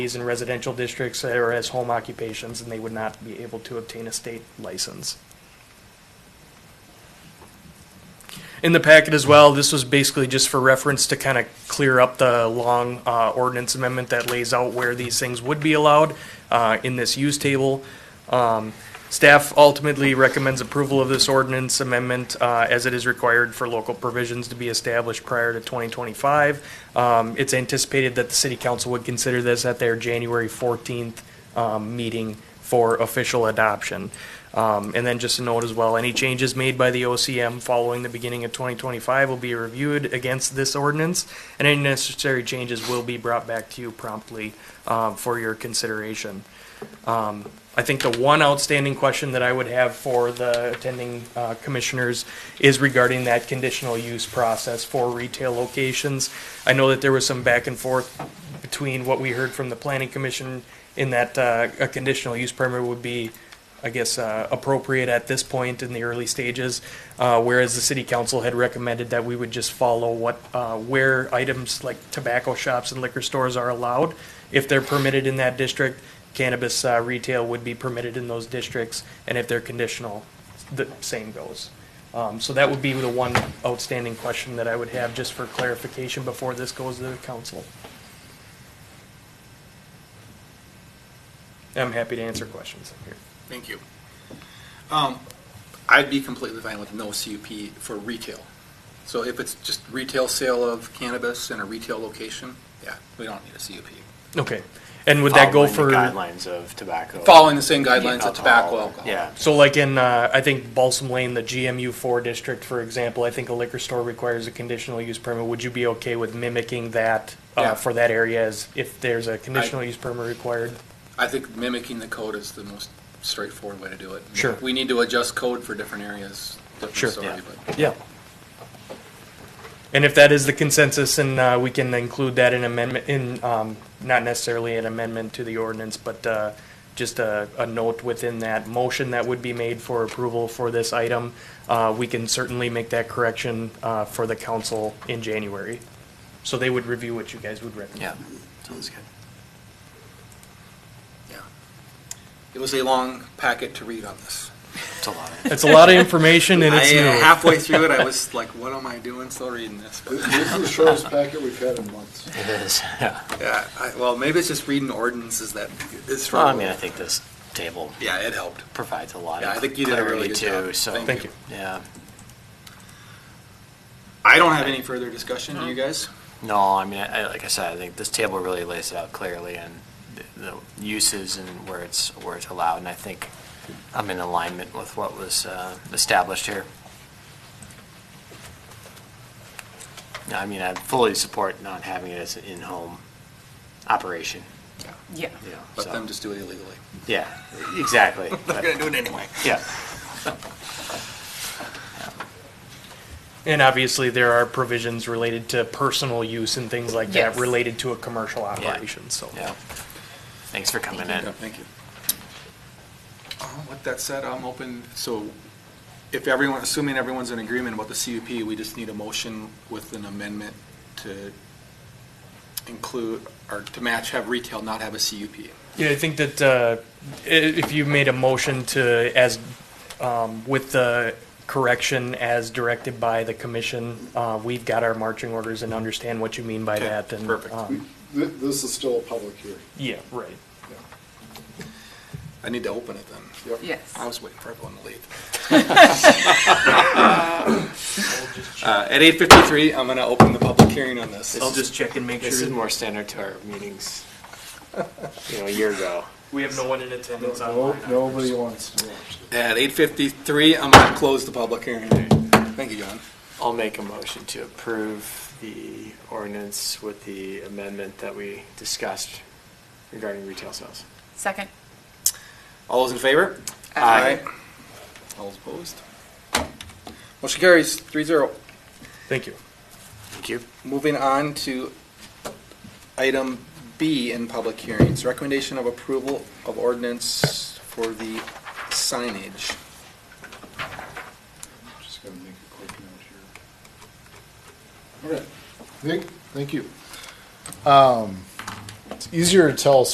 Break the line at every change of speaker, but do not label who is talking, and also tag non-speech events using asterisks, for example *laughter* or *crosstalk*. these in residential districts or as home occupations, and they would not be able to obtain a state license. In the packet as well, this was basically just for reference to kind of clear up the long uh, ordinance amendment that lays out where these things would be allowed uh, in this use table. Um, Staff ultimately recommends approval of this ordinance amendment uh, as it is required for local provisions to be established prior to 2025. Um, It's anticipated that the city council would consider this at their January 14th um, meeting for official adoption. Um, And then just a note as well, any changes made by the OCM following the beginning of 2025 will be reviewed against this ordinance, and any necessary changes will be brought back to you promptly uh, for your consideration. Um, I think the one outstanding question that I would have for the attending uh, commissioners is regarding that conditional use process for retail locations. I know that there was some back and forth between what we heard from the planning commission in that uh, a conditional use permit would be, I guess, uh, appropriate at this point in the early stages, uh, whereas the city council had recommended that we would just follow what, uh, where items like tobacco shops and liquor stores are allowed. If they're permitted in that district, cannabis uh, retail would be permitted in those districts, and if they're conditional, the same goes. Um, So that would be the one outstanding question that I would have, just for clarification before this goes to the council. I'm happy to answer questions here.
Thank you. Um, I'd be completely fine with no CUP for retail. So if it's just retail sale of cannabis in a retail location, yeah, we don't need a CUP.
Okay, and would that go
Following the
for,
Guidelines of tobacco.
Following the same guidelines of tobacco, alcohol.
Yeah,
so like in, uh, I think Balsam Lane, the GMU four district, for example, I think a liquor store requires a conditional use permit. Would you be okay with mimicking that uh,
Yeah.
for that area as if there's a conditional use permit required?
I think mimicking the code is the most straightforward way to do it.
Sure.
We need to adjust code for different areas,
Sure.
different story,
Yeah.
but
Yeah. And if that is the consensus, and uh, we can include that in amendment, in, um, not necessarily an amendment to the ordinance, but uh, just a, a note within that motion that would be made for approval for this item, uh, we can certainly make that correction uh, for the council in January. So they would review what you guys would recommend.
yeah, sounds good.
yeah. It was a long packet to read on this.
It's a lot.
It's a lot of information and
*laughs* I,
it's
uh,
new.
halfway through
*laughs*
it, I was like, what am I doing still reading this? But, *laughs*
This this is the shortest packet we've had in months.
It
*laughs*
is, yeah.
Yeah, I, well, maybe it's just reading ordinances that is
Well,
from.
Oh,
I mean, I think this table
Yeah, it helped.
provides a lot
Yeah, I
of
think you did a really
clarity
good
too,
job.
so.
Thank you.
Yeah,
I don't have any further discussion, do you guys?
no, I mean, I, I- like I said, I think this table really lays it out clearly and the the uses and where it's, where it's allowed. And I think I'm in alignment with what was, uh, established here. Yeah, I mean, I fully support not having it as an in-home operation,
Yeah.
you know,
Let
so-
them just do it illegally.
Yeah, exactly.
They're gonna do it anyway.
Yeah,
And obviously, there are provisions related to personal use and things like that
Yes.
related to a commercial operation, so.
yeah. Thanks for coming in.
Thank you. Uh, With that said, I'm open, so if everyone, assuming everyone's in agreement about the CUP, we just need a motion with an amendment to include, or to match, have retail not have a CUP.
Yeah, I think that uh, i- if you made a motion to, as, um, with the correction as directed by the commission, uh, we've got our marching orders and understand what you mean by
Okay,
that and.
perfect.
um,
Th- This is still a public hearing.
Yeah, right.
Yeah.
I need to open it then.
Yep.
Yes.
I was waiting for everyone to leave. Uh, At eight fifty-three, I'm gonna open the public hearing on this.
I'll just check and make
This is
sure.
more standard to our meetings, you know, a year ago.
We have no one in attendance
No,
online.
nobody wants to watch this.
At eight fifty-three, I'm gonna close the public hearing. Thank you, John.
I'll make a motion to approve the ordinance with the amendment that we discussed regarding retail sales.
Second.
All those in favor?
Aye.
All those opposed? Motion carries three zero.
Thank you.
Thank you.
Moving on to item B in public hearings, recommendation of approval of ordinance for the signage.
Just gonna make a quick note here. Okay, Nick, thank you. Um, It's easier to tell